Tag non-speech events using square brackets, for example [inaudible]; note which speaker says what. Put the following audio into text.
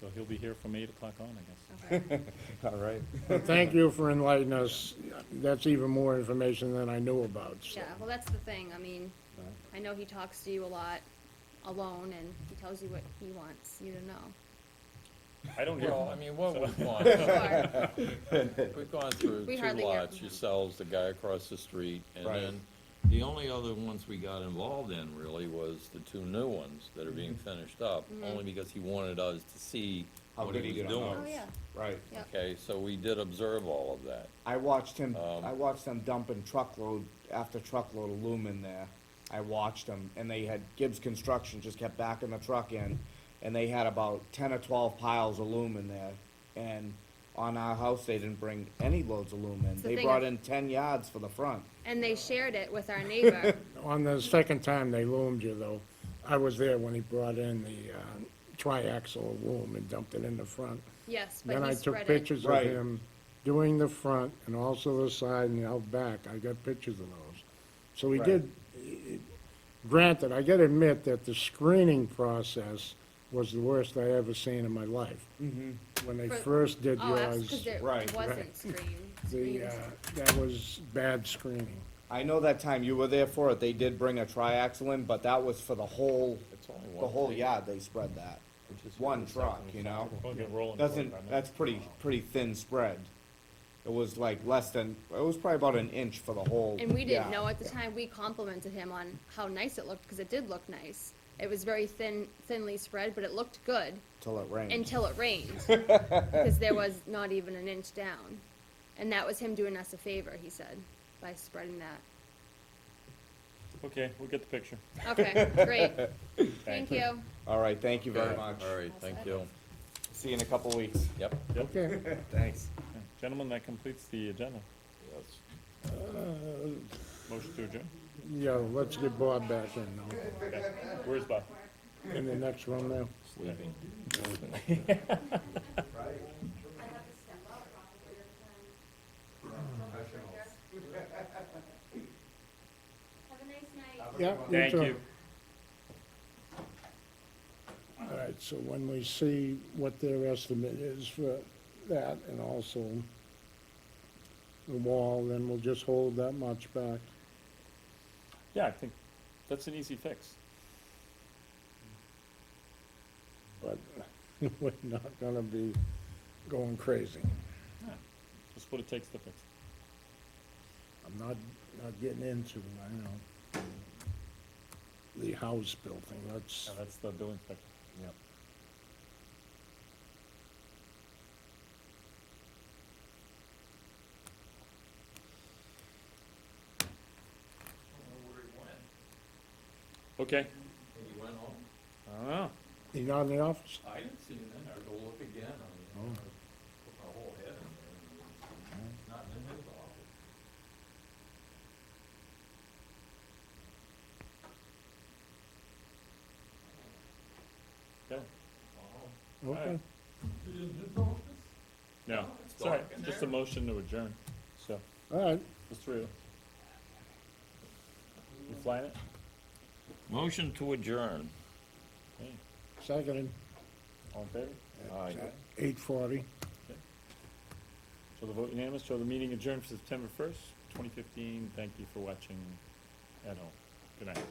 Speaker 1: so he'll be here from eight o'clock on, I guess.
Speaker 2: [laughs] All right.
Speaker 3: Thank you for enlightening us. That's even more information than I knew about, so.
Speaker 4: Yeah, well, that's the thing, I mean, I know he talks to you a lot alone, and he tells you what he wants you to
Speaker 3: [laughs]
Speaker 4: know.
Speaker 1: I don't hear,
Speaker 5: Well,
Speaker 2: [laughs]
Speaker 5: I mean, what we've gone,
Speaker 4: Or-
Speaker 5: we've gone through
Speaker 4: We
Speaker 5: two
Speaker 4: hardly hear
Speaker 5: lots,
Speaker 4: from him.
Speaker 5: yourselves, the guy across the street, and
Speaker 2: Right.
Speaker 5: then the only other ones we got involved in really was the two new ones that are being finished up,
Speaker 4: Mm-hmm.
Speaker 5: only because he wanted us to see
Speaker 2: Mm-hmm. How
Speaker 5: what
Speaker 2: good
Speaker 5: he
Speaker 2: he
Speaker 5: was
Speaker 2: did on
Speaker 4: Oh,
Speaker 5: doing.
Speaker 4: yeah,
Speaker 2: Right.
Speaker 4: yep,
Speaker 5: Okay, so we did observe all of that.
Speaker 2: I watched him,
Speaker 5: Um,
Speaker 2: I watched them dumping truckload after truckload of loom in there. I watched them, and they had, Gibbs Construction just kept backing the truck in, and they had about ten or twelve piles of loom in there. And on our house, they didn't bring any loads of loom in.
Speaker 4: the
Speaker 2: They
Speaker 4: thing
Speaker 2: brought
Speaker 4: is-
Speaker 2: in ten yards for the front.
Speaker 4: and they shared it with our
Speaker 2: [laughs]
Speaker 4: neighbor,
Speaker 3: On the second time they loomed you, though, I was there when he brought in the uh, triaxle loom and dumped it in the front.
Speaker 4: yes,
Speaker 3: Then
Speaker 4: but
Speaker 3: I
Speaker 4: he
Speaker 3: took
Speaker 4: spread it.
Speaker 3: pictures of
Speaker 2: Right.
Speaker 3: him doing the front and also the side and out back. I got pictures of those. So he
Speaker 2: Right.
Speaker 3: did, i- i- granted, I gotta admit that the screening process was the worst I ever seen in my life.
Speaker 2: Mm-hmm.
Speaker 3: When they
Speaker 4: For-
Speaker 3: first did
Speaker 4: Oh, that's because
Speaker 3: yours,
Speaker 4: there
Speaker 2: Right,
Speaker 4: it wasn't screened,
Speaker 3: the,
Speaker 4: screened.
Speaker 3: uh, that was bad screening.
Speaker 2: I know that time you were there for it, they did bring a triaxle in, but that was for the whole,
Speaker 5: It's only
Speaker 2: the
Speaker 5: one.
Speaker 2: whole
Speaker 5: thing,
Speaker 2: yard, they spread that.
Speaker 5: which is
Speaker 2: One
Speaker 5: the
Speaker 2: truck,
Speaker 5: second
Speaker 2: you know?
Speaker 1: we'll get rolling. for it
Speaker 2: Doesn't,
Speaker 1: by now.
Speaker 2: that's pretty, pretty thin spread. It was like less than, it was probably about an inch for the whole.
Speaker 4: And we didn't
Speaker 2: yeah.
Speaker 4: know at the time, we complimented him on how nice it looked, because it did look nice. It was very thin, thinly spread, but it looked good
Speaker 2: Till it rained.
Speaker 4: until it rained, [laughs] because there was not even an inch down. And that was him doing us a favor, he said, by spreading that.
Speaker 1: Okay, we'll get the picture.
Speaker 4: Okay, great. [laughs] Thank you.
Speaker 2: All right, thank you very
Speaker 5: Okay,
Speaker 2: much.
Speaker 5: All right, thank you.
Speaker 2: See you in a couple of weeks.
Speaker 5: Yep,
Speaker 3: Okay.
Speaker 2: Thanks.
Speaker 1: Yeah. Gentlemen, that completes the agenda.
Speaker 5: yes.
Speaker 1: Motion to adjourn.
Speaker 3: Yeah, let's get Bob back in now,
Speaker 1: Okay. Where's Bob?
Speaker 3: in the next room there.
Speaker 5: Sleeping.
Speaker 3: Yeah.
Speaker 1: Thank
Speaker 3: too.
Speaker 1: you.
Speaker 3: All right, so when we see what their estimate is for that and also the wall, then we'll just hold that much back.
Speaker 1: Yeah, I think that's an easy fix.
Speaker 3: But [laughs] we're not gonna be going crazy.
Speaker 1: Just what it takes to fix.
Speaker 3: I'm not, not getting into, I know, the house building, that's,
Speaker 1: Now, that's the building inspector.
Speaker 3: yep.
Speaker 1: Okay.
Speaker 5: He went home.
Speaker 1: I don't know.
Speaker 3: You not in the office?
Speaker 5: I didn't see him in there, go look again, I mean,
Speaker 2: Oh.
Speaker 5: I put my whole head in there, and not in his office.
Speaker 1: Okay.
Speaker 3: Okay.
Speaker 1: right. No, it's all right. Just a motion to adjourn. So,
Speaker 3: All right,
Speaker 1: the three of us. You flying it?
Speaker 5: Motion to adjourn.
Speaker 1: Hey,
Speaker 3: seconded,
Speaker 1: all in favor?
Speaker 5: Aye.
Speaker 3: eight forty.
Speaker 1: So the vote unanimous, so the meeting adjourned for September first, twenty fifteen. Thank you for watching at home. Good night.